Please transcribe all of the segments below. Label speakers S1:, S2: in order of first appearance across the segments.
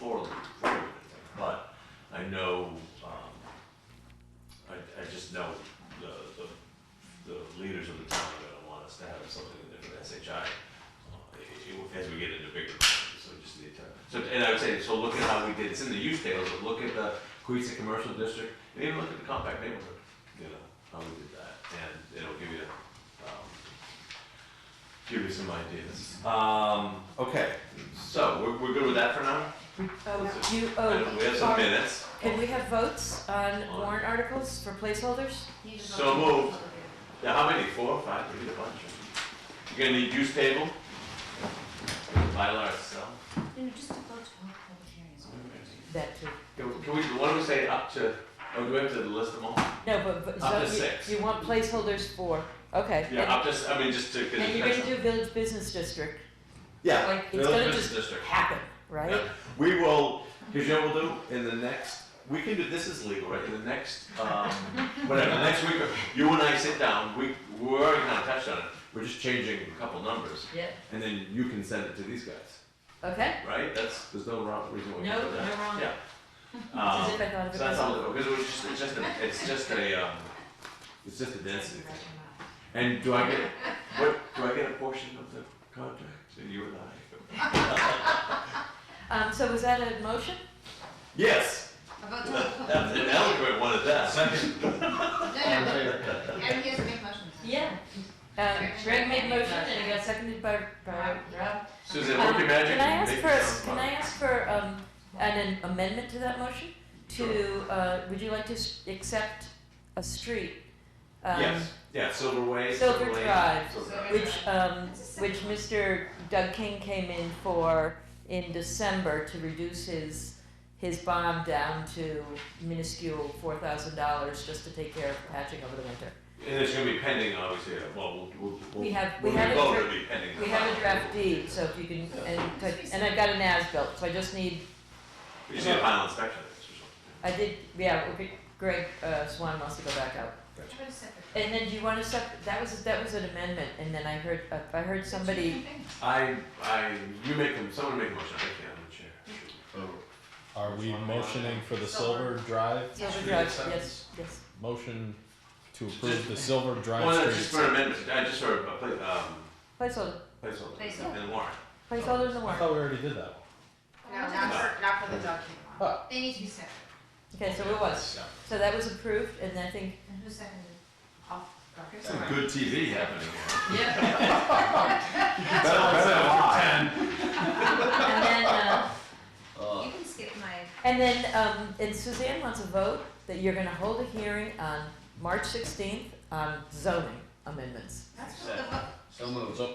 S1: poorly, poorly, but I know, um, I, I just know the, the, the leaders of the town are gonna want us to have something in there for SHI. uh, i- i- As we get into bigger, projects, so we just need to, so, and I would say, so look at how we did, it's in the use tables, but look at the Queens Commercial District, and even look at the compact neighborhood, you know, how we did that, and it'll give you, um, give you some ideas. Um, okay, so, we're, we're good with that for now?
S2: Oh,
S1: Let's
S2: you,
S1: And
S2: oh.
S1: We have some
S2: are-
S1: minutes.
S2: Can we have votes on warrant articles for placeholders?
S1: So moved. Yeah, how many? Four or five? We need a bunch. right? You're gonna need use table? Mylar itself?
S3: No, no, just to vote to hold public hearings.
S2: That too.
S1: Can can we, what do we say up to, oh, do we have to list them all?
S2: No, but, but,
S1: Up
S2: so
S1: to six.
S2: you, you want placeholders for, okay.
S1: Yeah, up to, s- I mean, just to, cause.
S2: And
S1: it
S2: you're gonna
S1: depends
S2: do village business district,
S4: Yeah,
S2: like,
S1: on-
S2: it's gonna
S1: Village
S2: just
S1: District.
S2: happen, right?
S1: Yeah.
S4: we will, here's what we'll do, in the next,
S1: We can do, this is legal, right? In the next, um, whatever, next week, you and I sit down, we, we're already kinda touched on it. We're just changing a couple numbers
S2: Yeah.
S4: and then you can send it to these guys.
S2: Okay,
S1: right? That's,
S4: There's no wrong reason why we
S2: no,
S4: can't do
S2: no
S4: that.
S2: wrong.
S1: yeah.
S2: As
S1: Um,
S2: if I thought of
S1: so
S2: it
S1: that's
S2: myself.
S1: all, because it was just, it's just a, it's just a, um,
S4: It's just a density.
S3: Right,
S4: thing.
S3: right.
S4: And do I get,
S1: What, do I get a portion of the contract? So you and I?
S2: Um, so was that a motion?
S4: yes,
S3: A vote to hold public.
S1: That's an eloquent one at that.
S5: Second. All in
S3: No,
S5: favor?
S3: no, everybody has to make motions.
S2: Yeah. Um, Greg made a motion and it got seconded by, by Rob.
S1: Susan, work your
S2: Um,
S1: magic.
S2: Can I ask
S1: make
S2: for,
S1: it
S2: a-
S1: sound
S2: can I
S1: fun.
S2: ask for, um, an amendment to that motion? To, uh, would you like to s- accept a street? um,
S4: yes, yeah, Silver Way,
S2: Silver
S4: Silver Lane.
S2: Drive,
S4: Silver
S3: Silver-
S2: Which, um,
S3: It's a simple
S2: which Mr. Doug King came in for in December to reduce his, his bond down to minuscule four thousand dollars just to take care of patching over the winter.
S1: And it's gonna be pending, obviously, uh, well, we'll, we'll.
S2: We have- we
S1: when
S2: have a
S1: vote,
S2: dra-
S1: it'll be pending.
S2: We have a draft deed, so if you can, and, could- and I've got an as-built, so I just need,
S1: You see a final inspection of this or something.
S2: I did, yeah, okay, Greg, uh, Swan wants to go back out.
S3: How about a separate?
S2: And then do you wanna sep, that was, that was an amendment, and then I heard, uh, I heard somebody,
S1: I, I, you make them, someone make a motion, I can't, I'm the chair.
S5: Are we motioning for the Silver Drive?
S2: Silver
S1: Street
S2: Drive, yes,
S1: acceptance.
S2: yes,
S5: Motion to approve the Silver
S1: Well, no,
S5: Drive
S1: just
S5: street.
S1: for an amendment, I just for a, pla- um,
S2: placeholder,
S1: placeholder,
S3: Placeholder.
S1: and warrant.
S2: placeholder in the
S5: I
S2: warrant.
S5: thought we already did that one.
S6: No, not for, not for the dog kennel.
S2: Oh.
S3: They need to be separate.
S2: Okay, so it was, so that was approved, and I think
S3: And who seconded?
S6: I'll- okay.
S4: Some good TV happening here.
S2: Yeah.
S4: Better, better live.
S2: And then, uh,
S3: You can skip my,
S2: and then, um, and Suzanne wants a vote that you're gonna hold a hearing on March sixteenth on zoning amendments.
S3: that's what the vote.
S5: So moved.
S1: Is there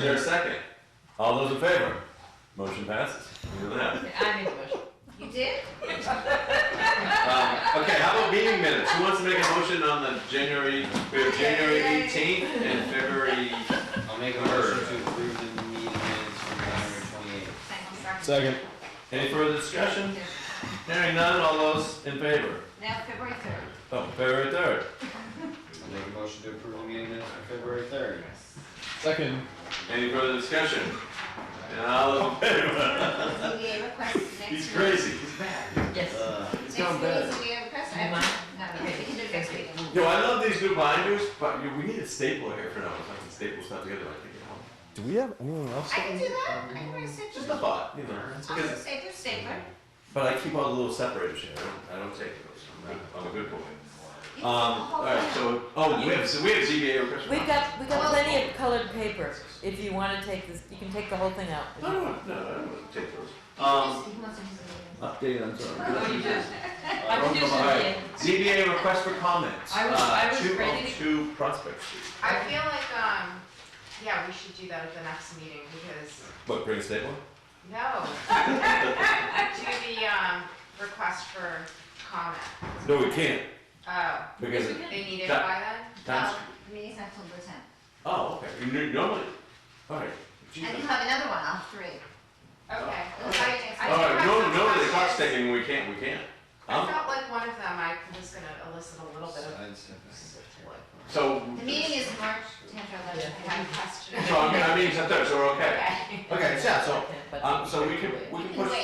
S1: a
S5: Second,
S1: second?
S4: All those in favor? Motion passes.
S1: Look at that.
S2: I made a motion.
S3: You did?
S1: Um, okay, how about meeting minutes? Who wants to make a motion on the January, we have January
S3: Yay.
S1: eighteenth and February?
S7: I'll make a motion to approve the meeting minutes from January twenty-eighth.
S3: Thank you.
S5: second,
S1: Any further discussion? Hearing none, all those in favor?
S3: Now February third.
S1: Oh, February third.
S7: I'll make a motion to approve the meeting minutes from February third.
S5: second,
S1: Any further discussion? And all those in favor?
S3: ZBA request next week.
S1: He's crazy.
S2: Yes.
S7: Uh,
S3: Next week,
S1: gone bad.
S3: ZBA request, I, no, no, we can do it next week.
S1: Yo, I love these new binders, but you- we need a stapler here for now. If I can staple stuff together, I think it helps.
S5: do we have anything else?
S3: I can do that, I can write a
S1: Just
S3: separate.
S1: a thought, you know.
S3: I'll
S1: because-
S3: just say, do stapler.
S1: But I keep all the little separators here. I don't, I don't take those. I'm, not- I'm a good boy.
S3: You
S1: Um, all right, so, oh, we have, so we have ZBA request.
S2: We've got, we've got plenty of colored paper, if you wanna take this, you can take the whole thing out.
S1: No, no, no, I don't want to take those.
S3: can
S1: Um,
S3: just- He wants to use it.
S4: Update on zoning.
S7: I
S1: don't
S2: do
S1: come on. ZBA request for comments.
S2: I was- I was ready to-
S1: Two oh two Prospect Street.
S6: I feel like, um, yeah, we should do that at the next meeting because,
S4: What, bring a staple?
S6: no. Do the, um, request for comment.
S4: No, we can't,
S6: Oh,
S4: because
S6: they need it
S1: That-
S6: by then?
S1: times,
S3: Um, meeting's October tenth.
S1: oh, okay, You knew- normally, all right.
S3: And
S1: Jesus.
S3: you'll have another one, I'll three.
S6: Okay.
S3: We'll try it next
S1: All
S6: I do
S3: week.
S1: right,
S6: have
S1: no,
S6: some
S1: no, the clock's
S6: questions.
S1: ticking, we can't, we can't.
S6: I
S1: Um,
S6: felt like one of them, I was gonna elicit a little bit of,
S7: side setback.
S1: so,
S3: The meeting is March tenth or eleventh.
S6: I had a question.
S1: so I'm, I mean, it's up there, so we're okay.
S6: Okay.
S1: Okay, yeah, so,
S2: But-
S1: um, so we can, we
S3: You
S1: can
S3: can
S1: push
S3: wait.